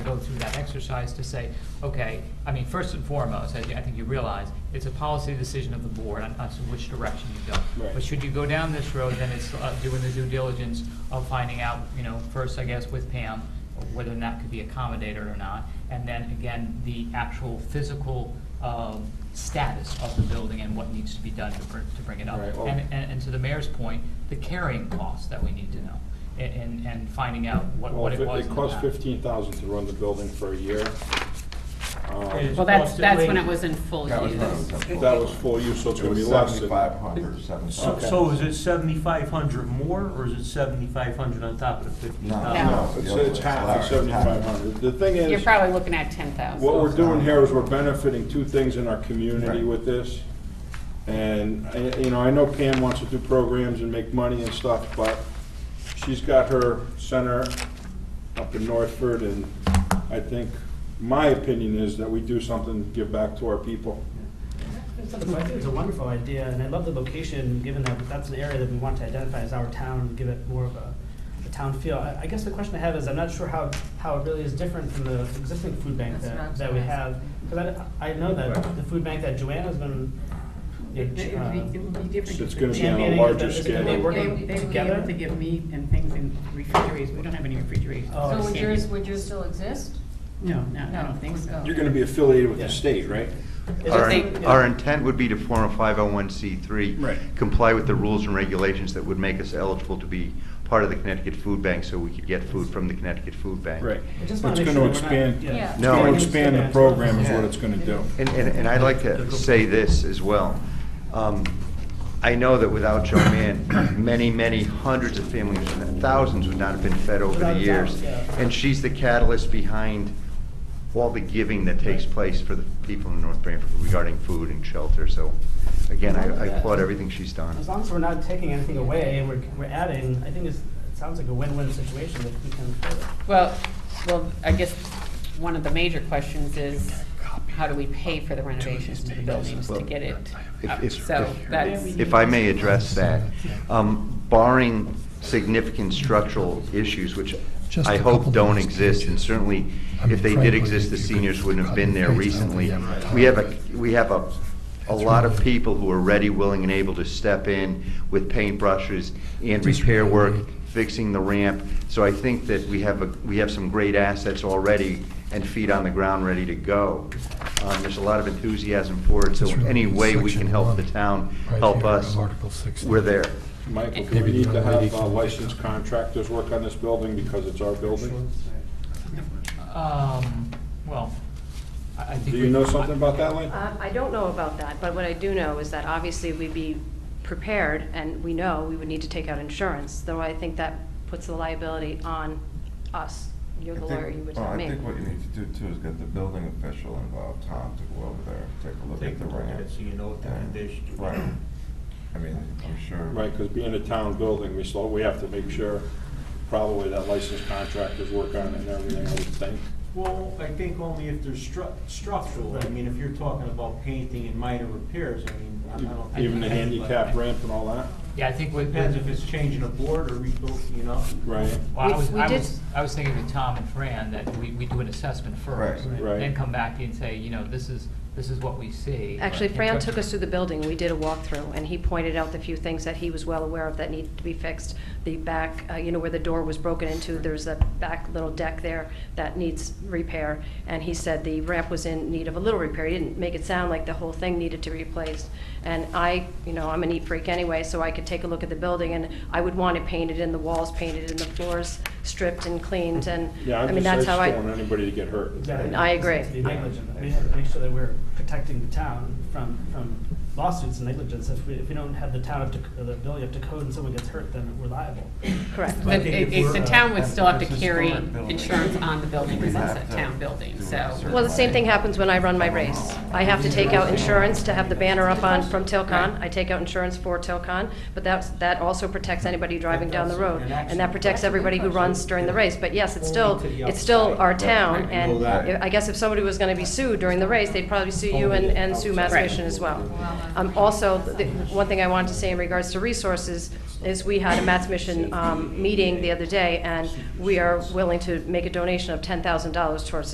through that exercise to say, okay, I mean, first and foremost, I, I think you realize, it's a policy decision of the board on, on which direction you go. Right. But should you go down this road, then it's uh, doing the due diligence of finding out, you know, first, I guess, with Pam, whether or not could be accommodated or not. And then, again, the actual physical, um, status of the building and what needs to be done to, br- to bring it up. Right, well- And, and, and to the mayor's point, the carrying costs that we need to know, a- and, and finding out what, Well, what it if was. in It the cost past. fifteen thousand to run the building for a year. Um, It is Well, that's, that's when it costing- was in full That was use. when it was in full. That was full use, so it's It gonna be was less than. seventy-five hundred, seven. So, so is it seventy-five hundred more, or is it sevenfive hundred on top of the fifteen No, No. thousand? no. It's, it's half of seventy-five hundred. The thing You're is, probably looking at ten thousand. what we're doing here is we're benefiting two things in our community Right. with this. And, I- you know, I know Pam wants to do programs and make money and stuff, but she's got her center up in Northford, and I think, my opinion is that we do something to give back to our people. It's not a question, It's a wonderful idea, and I love the location, given that that's an area that we want to identify as our town, and give it more of a, a town feel. I, I guess the question I have is, I'm not sure how, how it really is different from the existing food bank That's what I that, was that we gonna ask. have. Because I, I know that the food bank that Joanna's been, you It it know, would be, it uh, would be different. It's gonna be on a Championing larger is that- scale. they They, work they on would be together? able to give meat and things in refrigerators, we don't have any refrigerators. Oh, So I So see. would yours, would yours still exist? No, no, I No, don't think so. no. You're gonna be affiliated with Yeah. the state, right? it's Our, just like- our intent would be to form a 501c3. Right. Comply with the rules and regulations that would make us eligible to be part of the Connecticut Food Bank, so we could get food from the Connecticut Food Bank. I It's just wanna gonna make sure that we're not- expand, yeah. Yeah. it's No. gonna expand the program is what it's gonna do. And, and and I'd like to say this as well. Um, I know that without Joe Mann, many, many hundreds of families, thousands would not have been fed over Without the a doubt, years. yeah. And she's the catalyst behind all the giving that takes place for the people in North Branford regarding food and shelter. So again, I I applaud everything she's done. As long as we're not taking anything away and we're, we're adding, I think it's, it sounds like a win-win situation that we can. Well, well, I guess one of the major questions is, how do we pay for the renovations to the buildings to get it If- up? if- So if- that's, If I may address that, um, barring significant structural issues, which Just I a hope couple don't minutes. exist, and certainly I mean, if they did frankly, exist, the if you could seniors wouldn't have cut been and there paste, I don't recently. think they have We have time. a, we have a, a That's lot of really- people who are ready, willing, and able to step in with paintbrushes and That's repair really work, neat. fixing the ramp. So I think that we have, a we have some great assets already and feet on the ground ready to go. Um, There's a lot of enthusiasm for it, so That's really any way we section can help the one, town, right help here, us, Article 16. we're there. Michael, do we Maybe need the to young lady have uh, can- licensed contractors work on this building because it's our building? Um, well, I, I think. Do we- you know something about that, Lynn? Um, I don't know about that, but what I do know is that obviously we'd be prepared, and we know we would need to take out insurance, though I think that puts the liability on us. You're the I think- lawyer, you would well, tell me. I think what you need to do too is get the building official involved, Tom, to go over there, and take a look Take at a the look at ramp. it, so you know what the and- condition is. Right. I mean, I'm sure. Right, because being a town building, we still, we have to make sure probably that licensed contractors work on it and everything, I would think. Well, I think only if there's stru- structural, I mean, if you're talking about painting and minor repairs, I mean, I I don't. think- Even the handicap ramp and all that, Yeah, I think with, Depends if well, it's changing a board or rebuilt, you know? right? I We- was, we I did- was, I was thinking with Tom and Fran that we, we do an assessment first. Right. Right. Then come back and say, you know, this is, this is what we see. Actually, And Fran what- took us through the building, we did a walkthrough, and he pointed out the few things that he was well aware of that needed to be fixed. The back, uh, you know, where the door was broken into, there's a back little deck there that needs repair, and he said the ramp was in need of a little repair. He didn't make it sound like the whole thing needed to be replaced. And I, you know, I'm a neat freak anyway, so I could take a look at the building, and I would want it painted and the walls painted and the floors stripped and cleaned, and, Yeah, I I'm mean, just, I that's just how I. don't want anybody to get hurt. Exactly. I It's agree. To be negligent. We have to make sure that we're protecting the town from, from lawsuits and negligence. If we, if we don't have the town up to, or the building up to code and someone gets hurt, then we're liable. Correct. the, it- it's- the town would still have to It's a carry historic building. insurance on the building, because We have that's a to town building, do so. research. Well, the same thing happens when I run my race. I have to take out insurance to have the banner up on, from Tilcon. I take out insurance for Tilcon, but that's, that also protects anybody driving down the road. And that protects everybody who runs during the race. But yes, it's still, it's still our town, and I guess if somebody was gonna be sued during the race, they'd probably sue you and, and sue Mass Mission as well. Um, also, the, one thing I wanted to say in regards to resources is we had a Matt's Mission, um, meeting the other day, and we are willing to make a donation of ten thousand dollars towards